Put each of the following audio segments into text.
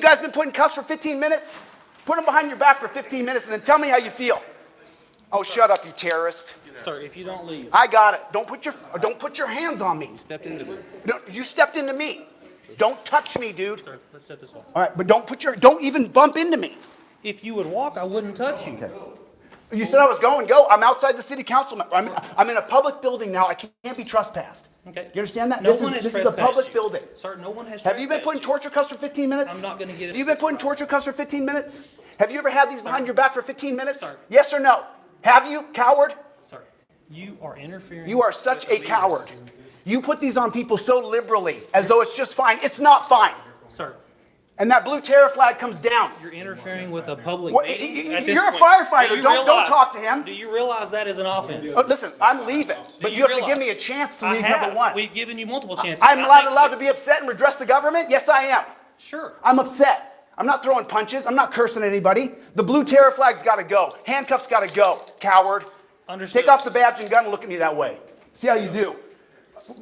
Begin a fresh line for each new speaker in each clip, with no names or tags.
guys been putting cuffs for 15 minutes? Put them behind your back for 15 minutes and then tell me how you feel. Oh, shut up, you terrorist.
Sir, if you don't leave,
I got it. Don't put your, don't put your hands on me.
stepped into me.
No, You stepped into me. Don't touch me, dude.
Sir, let's step this way.
All right, but don't put your, don't even bump into me.
If you would walk, I wouldn't touch you.
You said I was going, go. I'm outside the city council. mem- I'm, I'm in a public building now. I can't be trespassed.
Okay.
You understand that?
No
This
one
is,
has
this is a
trespassed
public
you.
building.
Sir, no one has
Have you been
trespassed
putting torture cuffs for 15 minutes?
I'm not gonna get a-
You've been putting torture cuffs for 15 minutes? Have you ever had these behind your back for 15 minutes?
Sir.
Yes or no? Have you, coward?
Sir, you are interfering.
You are such a coward. You put these on people so liberally as though it's just fine. It's not fine.
Sir,
And that blue terror flag comes down.
you're interfering with a public
What- y-
meeting
y-
at this
you're a
point.
firefighter.
Do you
Don't- don't
realize-
talk to him.
Do you realize that is an offense?
Oh, listen, I'm leaving, but
Do
you, have to give
realize-
me a chance to
I
leave
have.
number one.
We've given you multiple chances.
I'm
I
not
think-
allowed to be upset and redress the government? Yes, I am.
Sure.
I'm upset. I'm not throwing punches. I'm not cursing at anybody. The blue terror flag's got to go. Handcuffs got to go. Coward.
Understood.
Take off the badge and gun and look at me that way. See how you do.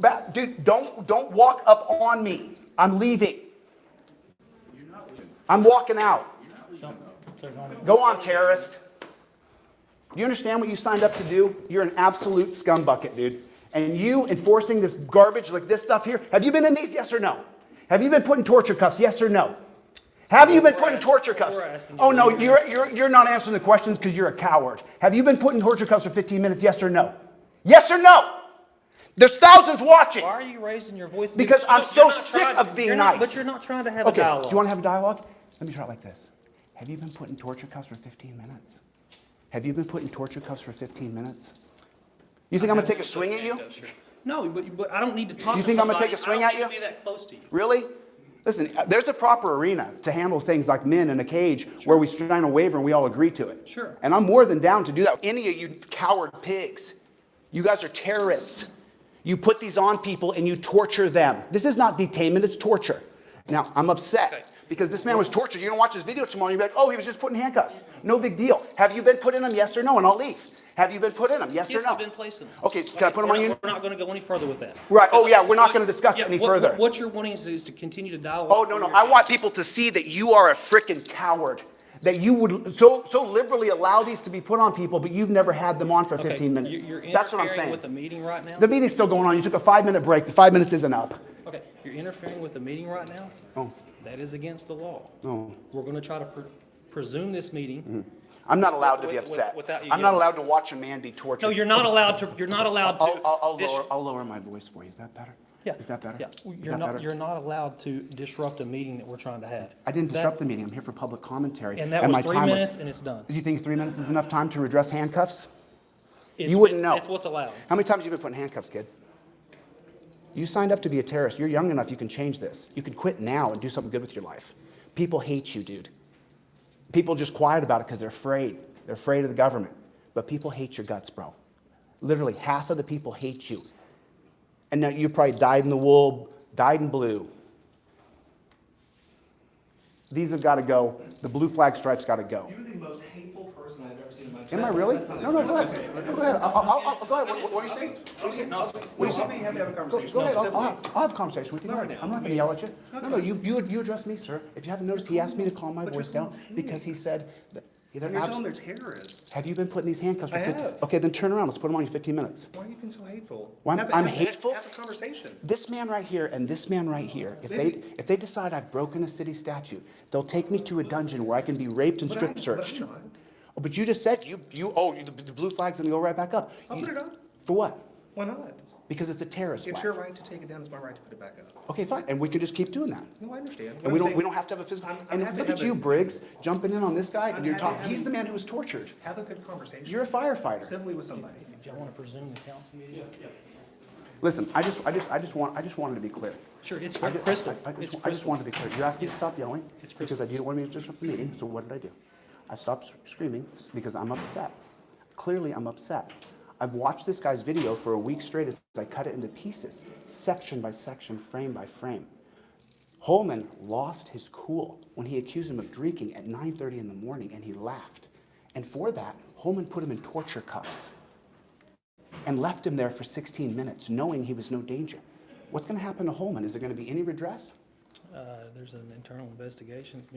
Ba- dude, don't don't walk up on me. I'm leaving. I'm walking out.
Don't- sir, don't-
Go on, terrorist. Do you understand what you signed up to do? You're an absolute scumbucket, dude. And you enforcing this garbage like this stuff here, have you been in these? Yes or no? Have you been putting torture cuffs? Yes or no? Have you been putting torture cuffs?
asking you-
Oh, no, you're, you're, you're not answering the questions because you're a coward. Have you been putting torture cuffs for 15 minutes? Yes or no? Yes or no? There's thousands watching.
Why are you raising your voice?
Because
You're
I'm
not-
so
you're not
sick
trying-
of being
you're not-
nice.
But you're not trying to have a
Okay, do
dialogue.
you want to have a dialogue? Let me try it like this. Have you been putting torture cuffs for 15 minutes? Have you been putting torture cuffs for 15 minutes? You think I'm gonna take a swing at you?
No, but, but I don't need to talk
You
to
think I'm gonna
somebody.
take a swing
I
at
don't need to
you?
be that close to you.
Really? Listen, uh, there's the proper arena to handle things like men in a cage where we sign a waiver and we all agree to it.
Sure.
And I'm more than down to do that. Any of you coward pigs, you guys are terrorists. You put these on people and you torture them. This is not detainment, it's torture. Now, I'm upset
Okay.
because this man was tortured. You're gonna watch this video tomorrow and you'll be like, oh, he was just put in handcuffs. No big deal. Have you been put in them? Yes or no? And I'll leave. Have you been put in them? Yes,
Yes,
or no?
I've been placing them.
Okay, can I put them
We're
on
not-
you?
We're not going to go any further with that.
Right. Oh, yeah, we're not
What-
gonna discuss
yeah,
any
what-
further.
What you're wanting is, is to continue to dialogue.
Oh, no, no. I want people to see that you are a freaking coward. That you would so so liberally allow these to be put on people, but you've never had them on for 15 minutes.
You're
That's what I'm
interfering
saying.
with a meeting right now?
the meeting's still going on. You took a five minute break. The five minutes isn't up.
Okay, you're interfering with a meeting right now?
Oh.
That is against the law.
Oh. Mm-hmm.
We're going to try to pre- presume this meeting.
I'm not allowed to be
With- with-
upset.
without you
I'm not
getting-
allowed to watch a man be tortured.
No, you're not allowed to, you're not allowed to.
I'll, I'll, I'll,
dis-
lower, I'll lower my voice for you. Is that better?
Yeah.
Is that better?
Yeah.
Is
You're
that
not,
better?
you're not allowed to disrupt a meeting that we're trying to have.
I didn't
That-
disrupt the meeting. I'm here for public commentary.
And that was
my
three
time
minutes and it's done.
Do you think three minutes is enough time to redress handcuffs?
It's-
You wouldn't
it's-
know.
It's what's allowed.
How many times have you been put in handcuffs, kid? You signed up to be a terrorist. You're young enough, you can change this. You can quit now and do something good with your life. People hate you, dude. People just quiet about it because they're afraid. They're afraid of the government. But people hate your guts, bro. Literally, half of the people hate you. And now you probably dyed in the wool, dyed in blue. These have got to go. The blue flag stripes got to go.
You're the most hateful person I've ever seen in my life.
Am I really? No, no, go ahead. No, Go ahead. I'll, I'll, I'll, go ahead. What, what are you saying? What are you saying?
What do you mean? Happy to have a
Go,
conversation.
go ahead,
No,
I'll, I'll,
simply-
have- I'll have a conversation with you.
No,
I'm
no.
not gonna yell at you. No, no, you, you, you address me, sir. If you haven't noticed, he asked me to calm my voice down
calling me.
because he said that they're
You're telling
abs-
them they're terrorists.
Have you been putting these handcuffs for
I
15?
have.
Okay, then turn around. Let's put them on you 15 minutes.
Why are you being so hateful?
Why am-
Have a-
I'm
have a-
hateful?
Have a conversation.
This man right here and this man right here, if they, if they decide I've broken a city statute, they'll take me to a dungeon where I can be raped and
But I-
strip
but I'm
searched.
not.
Oh, But you just said you, you, oh, you- the, the blue flag's gonna go right back up.
I'll
You-
put it up.
For what?
Why not?
Because it's a terrorist
It's
flag.
your right to take it down, it's my right to put it back up.
Okay, fine, and we could just keep doing that.
No, I understand.
And we don't, we don't have to have a physical,
I'm- I'm
and
happy
look
to
at
have
you,
a-
Briggs, jumping in on this guy, and
I'm
you're
happy
talking,
to have
he's
a-
the man who was tortured.
Have a good conversation.
You're a firefighter.
Civilly with somebody.
If y'all want to presume the council meeting?
Listen, I just, I just, I just want, I just wanted to be clear.
Sure, it's
I ju-
crystal.
I- I just-
It's
I just
crystal.
wanted to be clear. You asked me to stop yelling
It's
because
crystal.
I didn't want me to disrupt the meeting, so what did I do? I stopped screaming because I'm upset. Clearly, I'm upset. I've watched this guy's video for a week straight as I cut it into pieces, section by section, frame by frame. Holman lost his cool when he accused him of drinking at 9:30 in the morning and he laughed. And for that, Holman put him in torture cuffs and left him there for 16 minutes knowing he was no danger. What's going to happen to Holman? Is there going to be any redress?
Uh, There's an internal investigation that's being